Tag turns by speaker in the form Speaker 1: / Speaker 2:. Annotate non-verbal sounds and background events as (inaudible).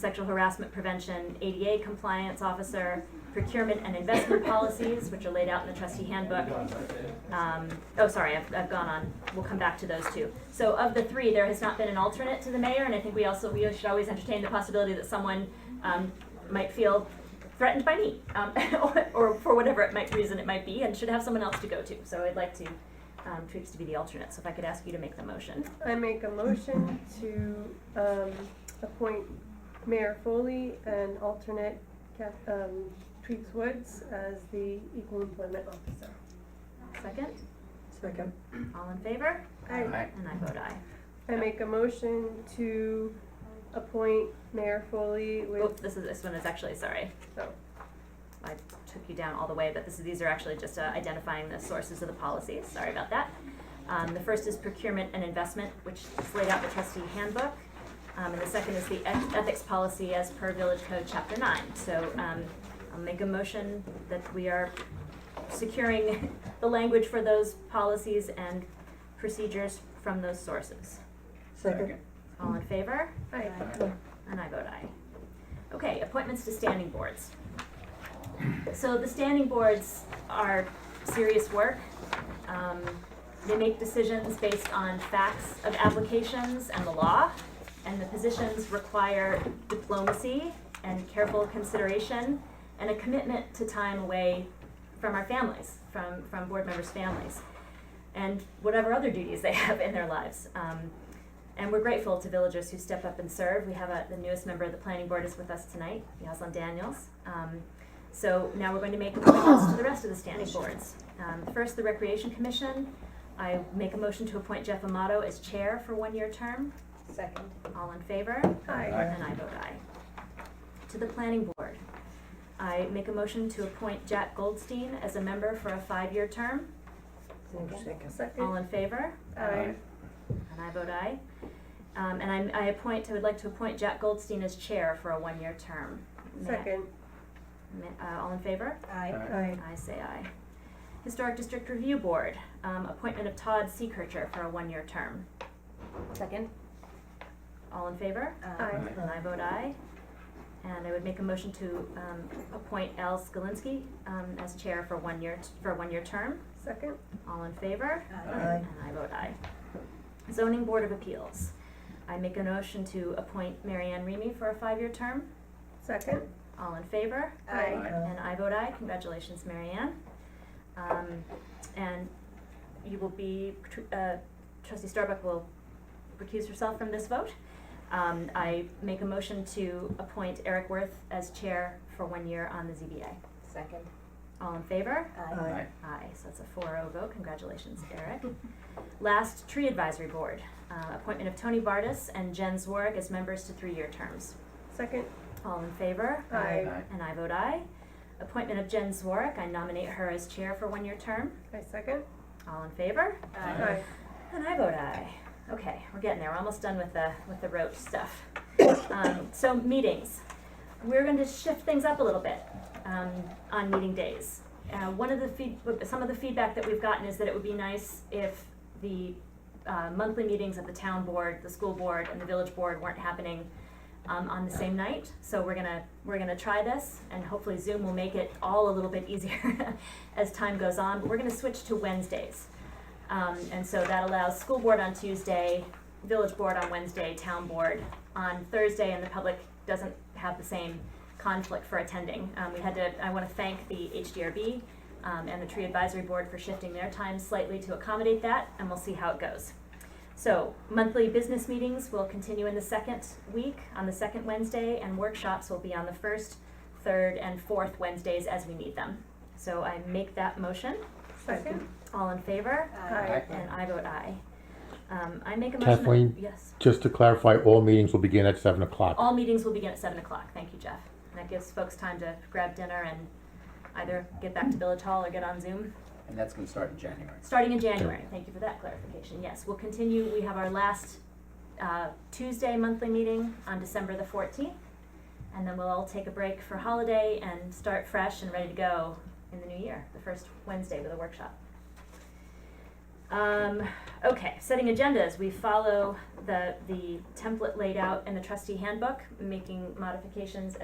Speaker 1: sexual harassment prevention, ADA compliance officer, procurement and investment policies, which are laid out in the trustee handbook. Um, oh, sorry, I've, I've gone on. We'll come back to those two. So of the three, there has not been an alternate to the mayor, and I think we also, we should always entertain the possibility that someone, um, might feel threatened by me, um, (laughs) or, or for whatever it might, reason it might be, and should have someone else to go to. So I'd like to, um, Tweaks to be the alternate, so if I could ask you to make the motion.
Speaker 2: I make a motion to um, appoint Mayor Foley and alternate Kath- um, Tweets Woods as the Equal Employment Officer.
Speaker 1: Second,
Speaker 3: Second.
Speaker 1: all in favor?
Speaker 2: I,
Speaker 1: And I vote aye.
Speaker 2: I make a motion to appoint Mayor Foley
Speaker 1: Oh,
Speaker 2: with,
Speaker 1: this is, this one is actually, sorry,
Speaker 2: oh,
Speaker 1: I took you down all the way, but this, is- these are actually just uh, identifying the sources of the policies, sorry about that. Um, the first is procurement and investment, which is laid out in the trustee handbook. Um, and the second is the eth- ethics policy as per village code chapter nine. So, um, I'll make a motion that we are securing (laughs) the language for those policies and procedures from those sources.
Speaker 3: Second.
Speaker 1: All in favor?
Speaker 2: aye.
Speaker 1: And I vote aye. Okay, appointments to standing boards. So the standing boards are serious work. Um, They make decisions based on facts of applications and the law, and the positions require diplomacy and careful consideration and a commitment to time away from our families, from, from board members' families, and whatever other duties they (laughs) have in their lives. Um, and we're grateful to villagers who step up and serve. We have a, the newest member of the planning board is with us tonight, Yaslin Daniels. Um, so now we're going to make appointments to the rest of the standing boards. Um, first, the Recreation Commission. I make a motion to appoint Jeff Amato as chair for one-year term.
Speaker 3: Second.
Speaker 1: All in favor?
Speaker 2: Aye.
Speaker 1: And I vote aye. To the planning board, I make a motion to appoint Jack Goldstein as a member for a five-year term.
Speaker 3: Second.
Speaker 1: All
Speaker 2: Second,
Speaker 1: in favor?
Speaker 2: aye.
Speaker 1: And I vote aye. Um, and I, I appoint, I would like to appoint Jack Goldstein as chair for a one-year term. May I-
Speaker 2: Second,
Speaker 1: may- uh, all in favor?
Speaker 3: Aye.
Speaker 2: aye.
Speaker 1: I say aye. Historic District Review Board, um, appointment of Todd Seekircher for a one-year term.
Speaker 3: Second.
Speaker 1: All in favor?
Speaker 2: Aye.
Speaker 1: And I vote aye. And I would make a motion to, um, appoint Al Skalinski, um, as chair for one year, for a one-year term.
Speaker 2: Second,
Speaker 1: All in favor?
Speaker 3: Aye.
Speaker 1: And I vote aye. Zoning Board of Appeals. I make a motion to appoint Mary Ann Remy for a five-year term.
Speaker 2: second,
Speaker 1: All in favor?
Speaker 2: aye.
Speaker 1: And I vote aye. Congratulations, Mary Ann. Um, and you will be, tr- uh, trustee Starbuck will recuse herself from this vote. Um, I make a motion to appoint Eric Worth as chair for one year on the ZBA.
Speaker 3: Second.
Speaker 1: All in favor?
Speaker 3: Aye.
Speaker 1: Aye, so that's a 4-0 vote, congratulations, Eric. Last, Tree Advisory Board, Uh, appointment of Tony Bartis and Jen Zwarg as members to three-year terms.
Speaker 2: Second,
Speaker 1: All in favor?
Speaker 2: aye.
Speaker 1: And I vote aye. Appointment of Jen Zwarg, I nominate her as chair for one-year term.
Speaker 2: I second,
Speaker 1: All in favor?
Speaker 2: aye.
Speaker 1: And I vote aye. Okay, we're getting there. We're almost done with the with the roach stuff. Um, so meetings, we're going to shift things up a little bit um, on meeting days. Uh, one of the feed, some of the feedback that we've gotten is that it would be nice if the uh, monthly meetings of the town board, the school board, and the village board weren't happening um, on the same night. So we're gonna we're gonna try this, and hopefully Zoom will make it all a little bit easier (laughs) as time goes on. But we're gonna switch to Wednesdays. Um, and so that allows school board on Tuesday, village board on Wednesday, town board on Thursday, and the public doesn't have the same conflict for attending. Um, we had to, I wanna thank the HDRB, um, and the tree advisory board for shifting their time slightly to accommodate that, and we'll see how it goes. So, monthly business meetings will continue in the second week, on the second Wednesday, and workshops will be on the first, third, and fourth Wednesdays as we need them. So I make that motion.
Speaker 2: Second,
Speaker 1: All in favor?
Speaker 2: aye.
Speaker 1: And I vote aye. Um, I make a motion. that-
Speaker 4: Kathleen?
Speaker 1: Yes.
Speaker 4: Just to clarify, all meetings will begin at seven o'clock.
Speaker 1: All meetings will begin at seven o'clock. Thank you, Jeff. And that gives folks time to grab dinner and either get back to Village Hall or get on Zoom.
Speaker 5: And that's gonna start in January.
Speaker 1: Starting in January. Thank you for that clarification. Yes, we'll continue. We have our last, uh, Tuesday monthly meeting on December the fourteenth. And then we'll all take a break for holiday and start fresh and ready to go in the new year, the first Wednesday with a workshop. Um, okay, setting agendas, we follow the, the template laid out in the trustee handbook, making modifications